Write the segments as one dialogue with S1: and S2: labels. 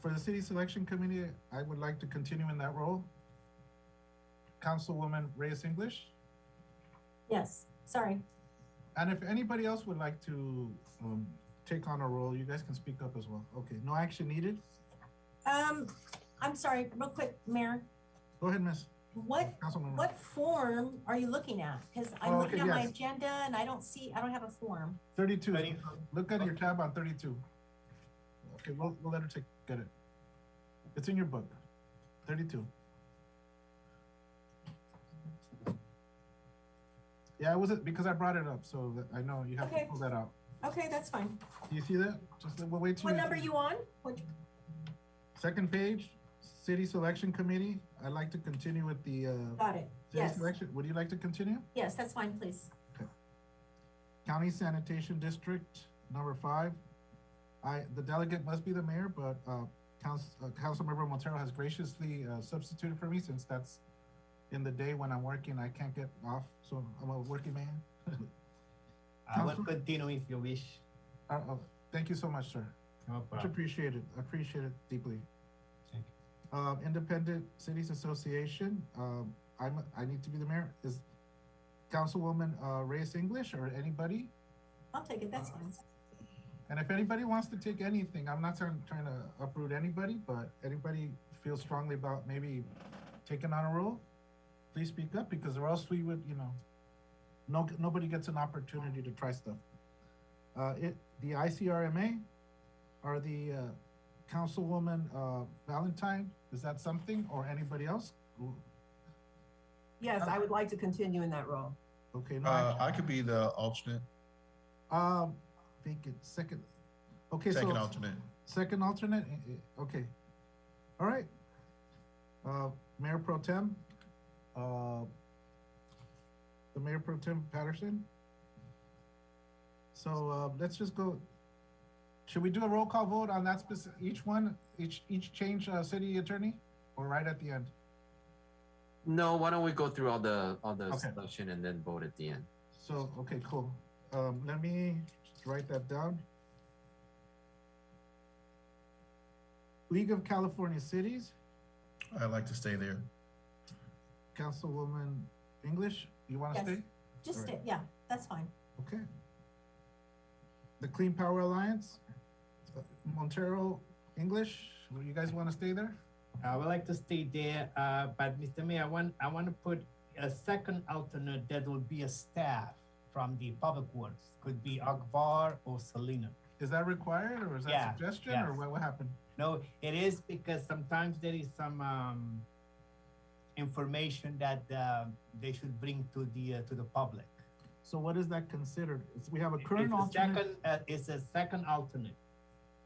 S1: for the city selection committee, I would like to continue in that role. Councilwoman Reyes English,
S2: Yes, sorry.
S1: and if anybody else would like to, um, take on a role, you guys can speak up as well. Okay, no action needed.
S2: Um, I'm sorry, real quick, Mayor,
S1: Go ahead, Miss
S2: what,
S1: Councilwoman.
S2: what form are you looking at? Cause
S1: Oh,
S2: I'm looking at
S1: okay,
S2: my
S1: yes.
S2: agenda and I don't see, I don't have a form.
S1: Thirty-two.
S3: Ready?
S1: Look at your tab on thirty-two. Okay, we'll, we'll let her take, get it. It's in your book, thirty-two. Yeah, I wasn't, because I brought it up, so that I know you have to
S2: Okay.
S1: pull that out.
S2: Okay, that's fine.
S1: Do you see that? Just, we'll wait till.
S2: What number you on? Which,
S1: Second page, city selection committee. I'd like to continue with the, uh,
S2: got it.
S1: city
S2: Yes,
S1: selection. Would you like to continue?
S2: yes, that's fine, please.
S1: County Sanitation District, number five. I, the delegate must be the mayor, but, uh, Council, uh, Councilmember Montero has graciously, uh, substituted for me since that's in the day when I'm working, I can't get off, so I'm a working man.
S3: I will
S1: Council-
S3: Ah, continue if you wish.
S1: Uh, uh, thank you so much, sir.
S3: No
S1: Much
S3: problem.
S1: appreciated, appreciate it deeply.
S3: Thank
S1: Um, Independent Cities Association, um, I'm, I need to be the mayor. Is Councilwoman, uh, Reyes English or anybody?
S2: I'll take it,
S1: Uh,
S2: that's fine.
S1: And if anybody wants to take anything, I'm not trying, trying to uproot anybody, but anybody feels strongly about maybe taking on a role, please speak up because or else we would, you know, no, nobody gets an opportunity to try stuff. Uh, it, the ICRMA or the, uh, Councilwoman, uh, Valentine, is that something or anybody else? Ooh,
S4: Yes, I would like to continue in that role.
S1: Okay, no,
S5: Uh,
S1: action.
S5: I could be the alternate,
S1: um, vacant, second. Okay, so.
S5: second alternate.
S1: Second alternate, Eh, eh, okay. All right. Uh, Mayor Pro Tem, uh, the Mayor Pro Tem Patterson. So, uh, let's just go. Should we do a roll call vote on that specific, each one, each, each change, uh, city attorney? Or right at the end?
S6: No, why don't we go through all the all the
S1: Okay.
S6: selection and then vote at the end?
S1: So, okay, cool. Um, let me just write that down. League of California Cities.
S5: I'd like to stay there.
S1: Councilwoman English, you want to
S2: Yes.
S1: stay?
S2: Just,
S1: Alright.
S2: it- yeah, that's fine.
S1: Okay. The Clean Power Alliance, uh, Montero, English, will you guys want to stay there?
S3: I would Ah, like to stay there, uh, but Mr. Mayor, I want, I want to put a second alternate that will be a staff from the public works. Could be Akbar or Selena.
S1: Is that required or is that
S3: Yeah,
S1: a suggestion or
S3: yes.
S1: what will happen?
S3: No, it is because sometimes there is some, um, information that, uh, they should bring to the, uh, to the public.
S1: So what is that considered? It's- We have a current
S3: It's a
S1: alternate.
S3: second, uh, It's a second alternate.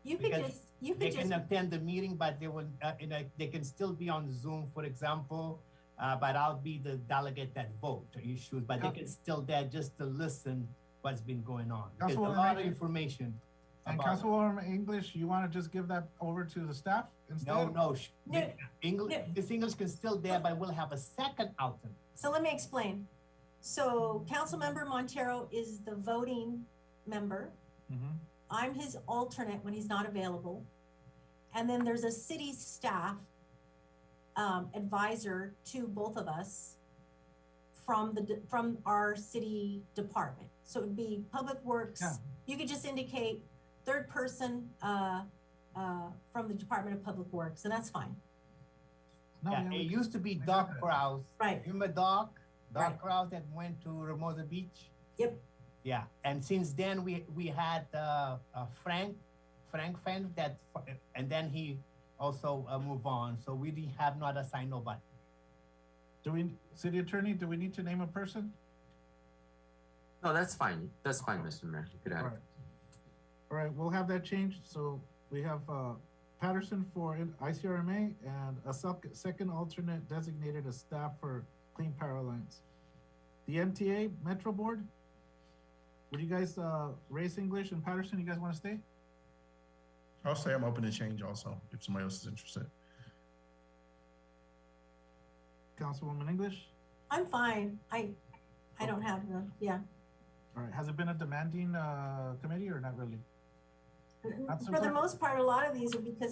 S2: You could
S3: Because
S2: just, you
S3: they
S2: could just,
S3: can attend the meeting, but they will, uh, in a, they can still be on Zoom, for example. Uh, but I'll be the delegate that vote or issues, but they
S1: Yeah.
S3: can still there just to listen what's been going on. There's a
S1: Councilwoman
S3: lot of
S1: Reagan.
S3: information.
S1: And
S3: about-
S1: Councilwoman English, you want to just give that over to the staff instead?
S3: No, no, sh-
S2: No,
S3: English,
S2: no.
S3: this English can still there, but we'll have a second alternate.
S2: so let me explain. So Councilmember Montero is the voting member.
S1: Mhm.
S2: I'm his alternate when he's not available. And then there's a city staff um, advisor to both of us from the, de- from our city department. So it'd be Public Works.
S1: Yeah.
S2: You could just indicate third person uh, uh, from the Department of Public Works, and that's fine.
S1: No,
S3: Yeah,
S1: yeah,
S3: it
S1: we-
S3: used to be
S1: we
S3: Doc
S1: got it.
S3: Kraus.
S2: Right.
S3: Remember Doc?
S2: Right.
S3: Doc Kraus that went to Ramosa Beach?
S2: Yep.
S3: Yeah, and since then, we, we had, uh, uh, Frank, Frank Fenn that, and then he also, uh, moved on, so we didn't have not assigned nobody.
S1: do we, city attorney, do we need to name a person?
S6: No, that's fine. That's fine, Mr. Mayor. You could have.
S1: Alright. Alright, we'll have that changed, so we have, uh, Patterson for in- ICRMA and a sub, second alternate designated as staff for Clean Power Alliance. The MTA Metro Board, would you guys, uh, Race English and Patterson, you guys wanna stay?
S5: I'll say I'm open to change also, if somebody else is interested.
S1: Councilwoman English,
S2: I'm fine. I, I don't have the, yeah.
S1: alright, has it been a demanding, uh, committee or not really? That's
S2: For
S1: okay.
S2: the most part, a lot of these are because